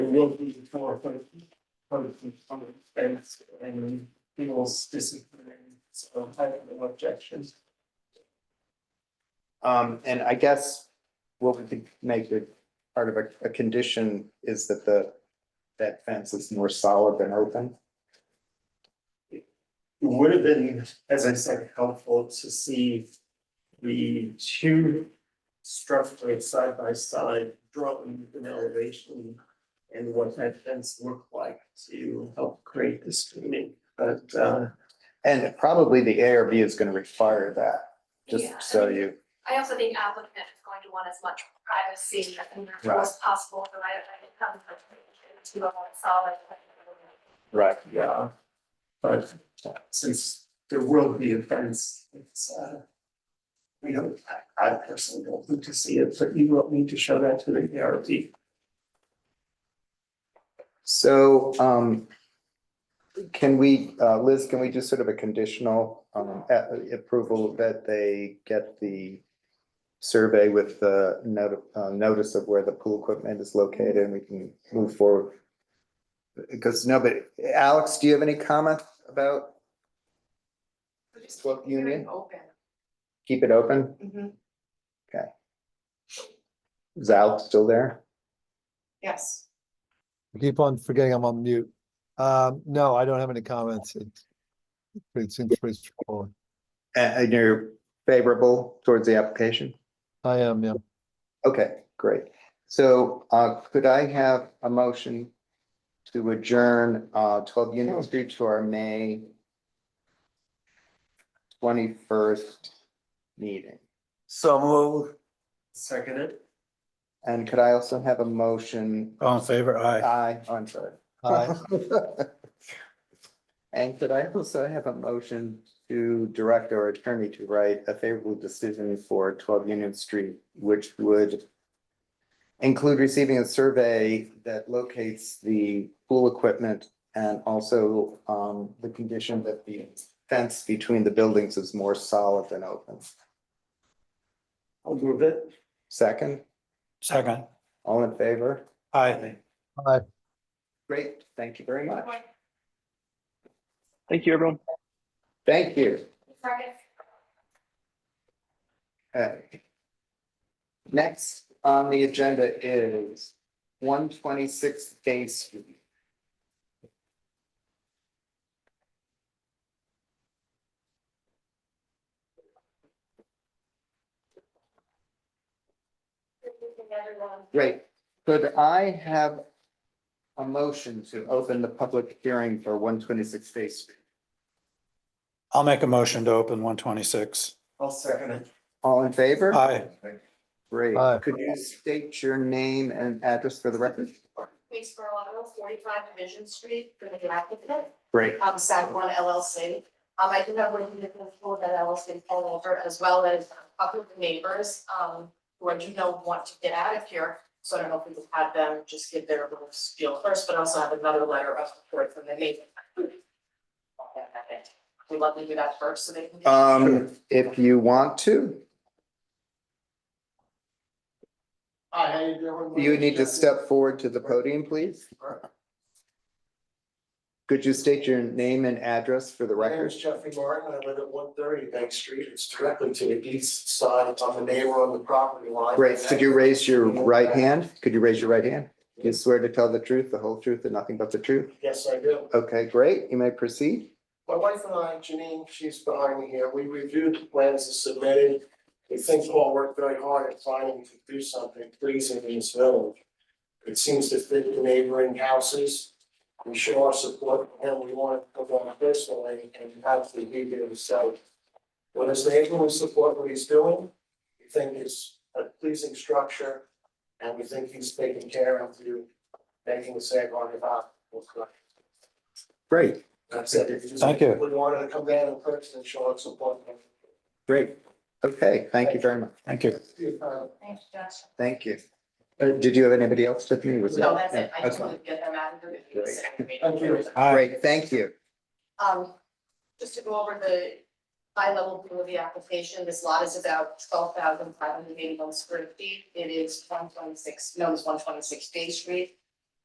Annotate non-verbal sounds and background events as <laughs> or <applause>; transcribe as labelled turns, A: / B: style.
A: will be for both, both public space and people's discipline. So I have no objections.
B: Um, and I guess what we could make it part of a, a condition is that the, that fence is more solid than open.
A: It would have been, as I said, helpful to see the two structures side by side, drawing an elevation and what that fence looked like to help create the screening, but uh
B: And probably the ARB is gonna require that,
C: Yeah.
B: just so you,
C: I also think applicant is going to want as much privacy as
B: Right.
C: possible, so I, I think that's the- to a solid.
B: right,
A: yeah. But since there will be a fence, it's uh we don't, I I personally don't need to see it, but you will need to show that to the ARB.
B: so, um. Can we, uh, Liz, can we do sort of a conditional, um, a- approval that they get the. Survey with the note, uh, notice of where the pool equipment is located and we can move forward. Because nobody, Alex, do you have any comment about What union?
D: Open.
B: keep it open?
D: Mhm.
B: Is Alex still there?
D: yes.
E: I keep on forgetting I'm on mute. Um, no, I don't have any comments. It's pretty, it seems pretty straightforward.
B: And, and you're favorable towards the application?
E: I am, yeah.
B: Okay, great. So uh, could I have a motion to adjourn uh, 12 Union Street to our May 21st meeting?
F: So moved.
A: Seconded.
B: And could I also have a motion?
F: All in favor, aye.
B: Aye, oh, I'm sorry.
E: Hi,
B: <laughs> And could I also have a motion to direct our attorney to write a favorable decision for twelve Union Street, which would include receiving a survey that locates the pool equipment and also um the condition that the fence between the buildings is more solid than open.
A: I'll move it.
B: Second,
F: Second,
B: all in favor?
F: aye.
E: hi.
B: Great, thank you very much.
G: Thank you, everyone.
B: Thank you.
C: Second.
B: Okay. Next on the agenda is one twenty-six Bay Street. Great. Could I have a motion to open the public hearing for one twenty-six Bay Street?
F: I'll make a motion to open one twenty-six.
A: I'll second it.
B: All in favor?
F: Aye.
B: Great.
E: Aye.
B: Could you state your name and address for the record?
D: Please for auto, forty-five Division Street, for the applicant,
B: Great.
D: um, Sac One LLC. Um, I do have one individual for that LLC pulled over, as well as a couple of neighbors, um, who I do know want to get out of here. So I don't know if we could have them just give their little spiel first, but also have another letter of support from the neighbor. We'd love to do that first, so they can. get-
B: Um, if you want to,
A: Hi, how you doing?
B: you need to step forward to the podium, please. Could you state your name and address for the
H: My name
B: record?
H: is Jeffrey Martin. I live at one thirty Bank Street. It's directly to the east side. It's on the neighbor on the property line.
B: Great. Could you raise your right hand? Could you raise your right hand? Do You swear to tell the truth, the whole truth, and nothing but the truth?
H: Yes, I do.
B: Okay, great. You may proceed.
H: My wife and I, Janine, she's behind me here. We reviewed the plans that submitted. We think we all worked very hard at finding to do something pleasing in this village. It seems to fit the neighboring houses. We show our support for him. We want to go on personally and have the media himself. When his neighbor, we support what he's doing. We think it's a pleasing structure. And we think he's taking care of you, making the same on about what's going on.
B: Great,
H: That's it.
F: Thank you.
H: We wanted to come down in person and show us support.
B: great. Okay, thank you very much.
F: Thank you.
D: Thanks, Josh.
B: Thank you. Uh, did you have anybody else with you? Was
D: No, that's it. I just
B: Okay.
D: wanted to get them out of the.
H: Thank you.
F: Aye.
B: Great, thank you.
D: Um, just to go over the high level view of the application, this lot is about twelve thousand five hundred eighty-one square feet. It is one twenty-six, known as one twenty-six Bay Street.